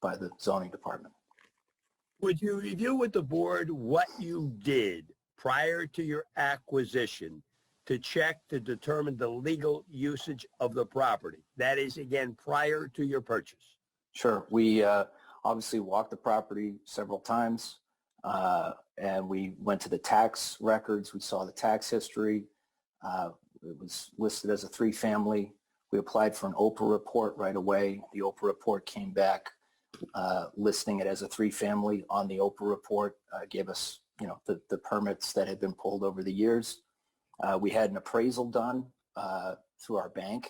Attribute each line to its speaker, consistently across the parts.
Speaker 1: by the zoning department.
Speaker 2: Would you review with the board what you did prior to your acquisition to check to determine the legal usage of the property? That is, again, prior to your purchase.
Speaker 1: Sure. We uh, obviously walked the property several times, uh, and we went to the tax records. We saw the tax history. Uh, It was listed as a three-family. We applied for an Oprah report right away. The Oprah report came back uh, listing it as a three-family on the Oprah report, uh, gave us, you know, the the permits that had been pulled over the years. Uh, We had an appraisal done uh, through our bank.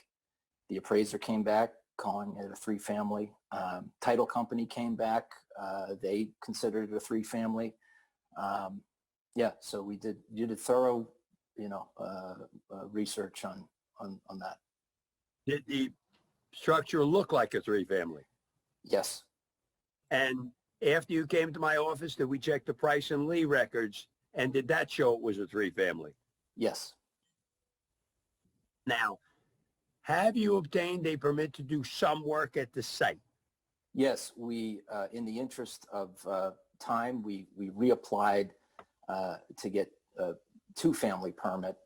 Speaker 1: The appraiser came back calling it a three-family. Um, title company came back. Uh, they considered it a three-family. Um, yeah, so we did you did thorough, you know, uh, uh, research on on on that.
Speaker 2: Did the structure look like a three-family?
Speaker 1: Yes,
Speaker 2: And after you came to my office, did we check the Price and Lee records? And did that show it was a three-family?
Speaker 1: yes,
Speaker 2: Now, have you obtained a permit to do some work at the site?
Speaker 1: yes. We uh, in the interest of uh, time, we we reapplied uh, to get a two-family permit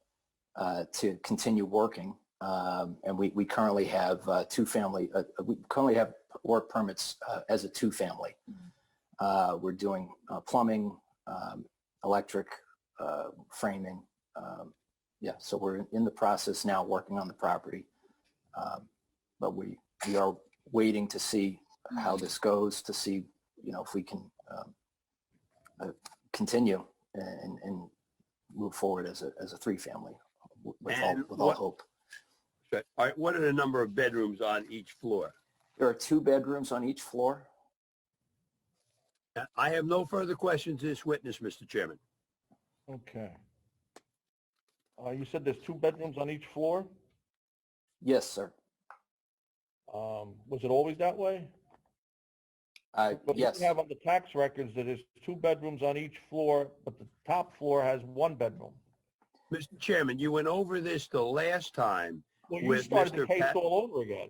Speaker 1: uh, to continue working. Um, and we, we currently have uh, two family, uh, we currently have work permits uh, as a two family. Uh, we're doing uh, plumbing, um, electric, uh, framing. Um, yeah, so we're in the process now working on the property. Um, but we, we are waiting to see how this goes, to see, you know, if we can um, uh, continue and, and move forward as a, as a three family with all,
Speaker 2: And
Speaker 1: with all
Speaker 2: what-
Speaker 1: hope.
Speaker 2: All right, what are the number of bedrooms on each floor?
Speaker 1: There are two bedrooms on each floor.
Speaker 2: Uh, I have no further questions to this witness, Mr. Chairman.
Speaker 3: Okay. Uh, you said there's two bedrooms on each floor?
Speaker 1: Yes, sir.
Speaker 3: Um, was it always that way?
Speaker 1: Uh,
Speaker 3: But
Speaker 1: yes,
Speaker 3: We have on the tax records that there's two bedrooms on each floor, but the top floor has one bedroom.
Speaker 2: Mr. Chairman, you went over this the last time.
Speaker 3: Well, you
Speaker 2: With
Speaker 3: started
Speaker 2: Mr.
Speaker 3: the case
Speaker 2: Pat-
Speaker 3: all over again.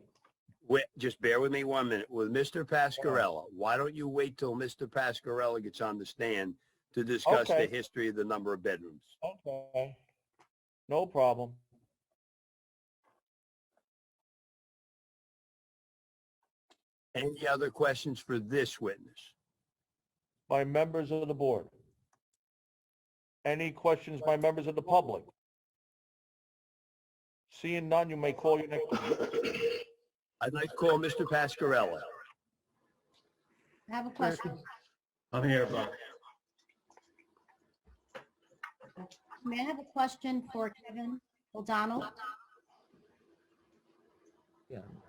Speaker 2: Wi- just bear with me one minute with Mr. Pascarella. Why don't you wait till Mr. Pascarella gets on the stand to discuss
Speaker 3: Okay.
Speaker 2: the history of the number of bedrooms?
Speaker 3: Okay. No problem.
Speaker 2: Any other questions for this witness?
Speaker 3: By members of the board. Any questions by members of the public? Seeing none, you may call your next
Speaker 2: I'd like to call Mr. Pascarella.
Speaker 4: I have a question.
Speaker 5: I'm here, Bob.
Speaker 4: May I have a question for Kevin O'Donnell?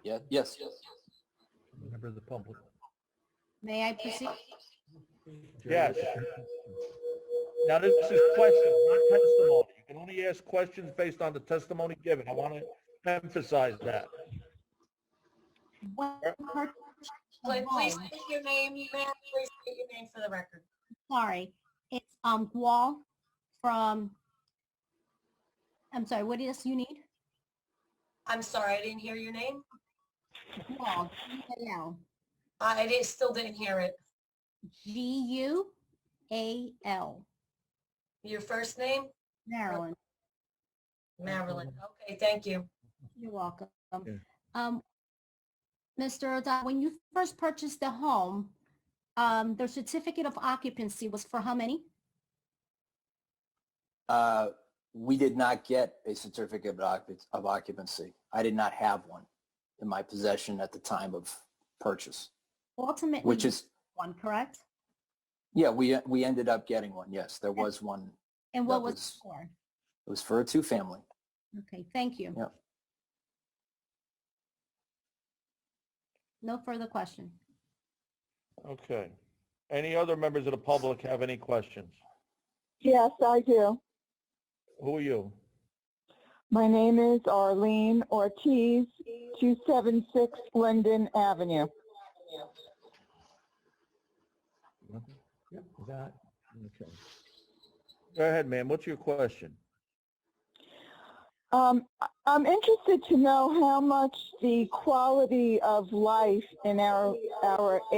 Speaker 1: yeah, yes.
Speaker 3: member of the public.
Speaker 4: May I proceed?
Speaker 3: Yes. Now, this is questions, not testimony. You can only ask questions based on the testimony given. I want to emphasize that.
Speaker 4: When purchased the
Speaker 6: Like, please
Speaker 4: home-
Speaker 6: state your name, ma'am, please state your name for the record.
Speaker 4: Sorry, it's, um, Wall from, I'm sorry, what is you need?
Speaker 6: I'm sorry, I didn't hear your name.
Speaker 4: Wall, G-A-L,
Speaker 6: I I didn't, still didn't hear it.
Speaker 4: G-U-A-L,
Speaker 6: Your first name?
Speaker 4: Maryland.
Speaker 6: Marilyn. Okay, thank you.
Speaker 4: You're welcome.
Speaker 3: Yeah.
Speaker 4: Um, Mr. O'Donnell, when you first purchased the home, um, the certificate of occupancy was for how many?
Speaker 1: Uh, we did not get a certificate of occup- of occupancy. I did not have one in my possession at the time of purchase,
Speaker 4: Ultimately,
Speaker 1: which
Speaker 4: you
Speaker 1: is,
Speaker 4: got one, correct?
Speaker 1: yeah, we, we ended up getting one. Yes, there was one.
Speaker 4: And
Speaker 1: That
Speaker 4: what was it
Speaker 1: was-
Speaker 4: for?
Speaker 1: It was for a two-family.
Speaker 4: Okay, thank you.
Speaker 1: Yep.
Speaker 4: No further question.
Speaker 3: Okay. Any other members of the public have any questions?
Speaker 7: Yes, I do.
Speaker 3: Who are you?
Speaker 7: My name is Arlene Ortiz, 276 Linden Avenue.
Speaker 3: That, okay. Go ahead, ma'am. What's your question?
Speaker 7: Um, I- I'm interested to know how much the quality of life in our, our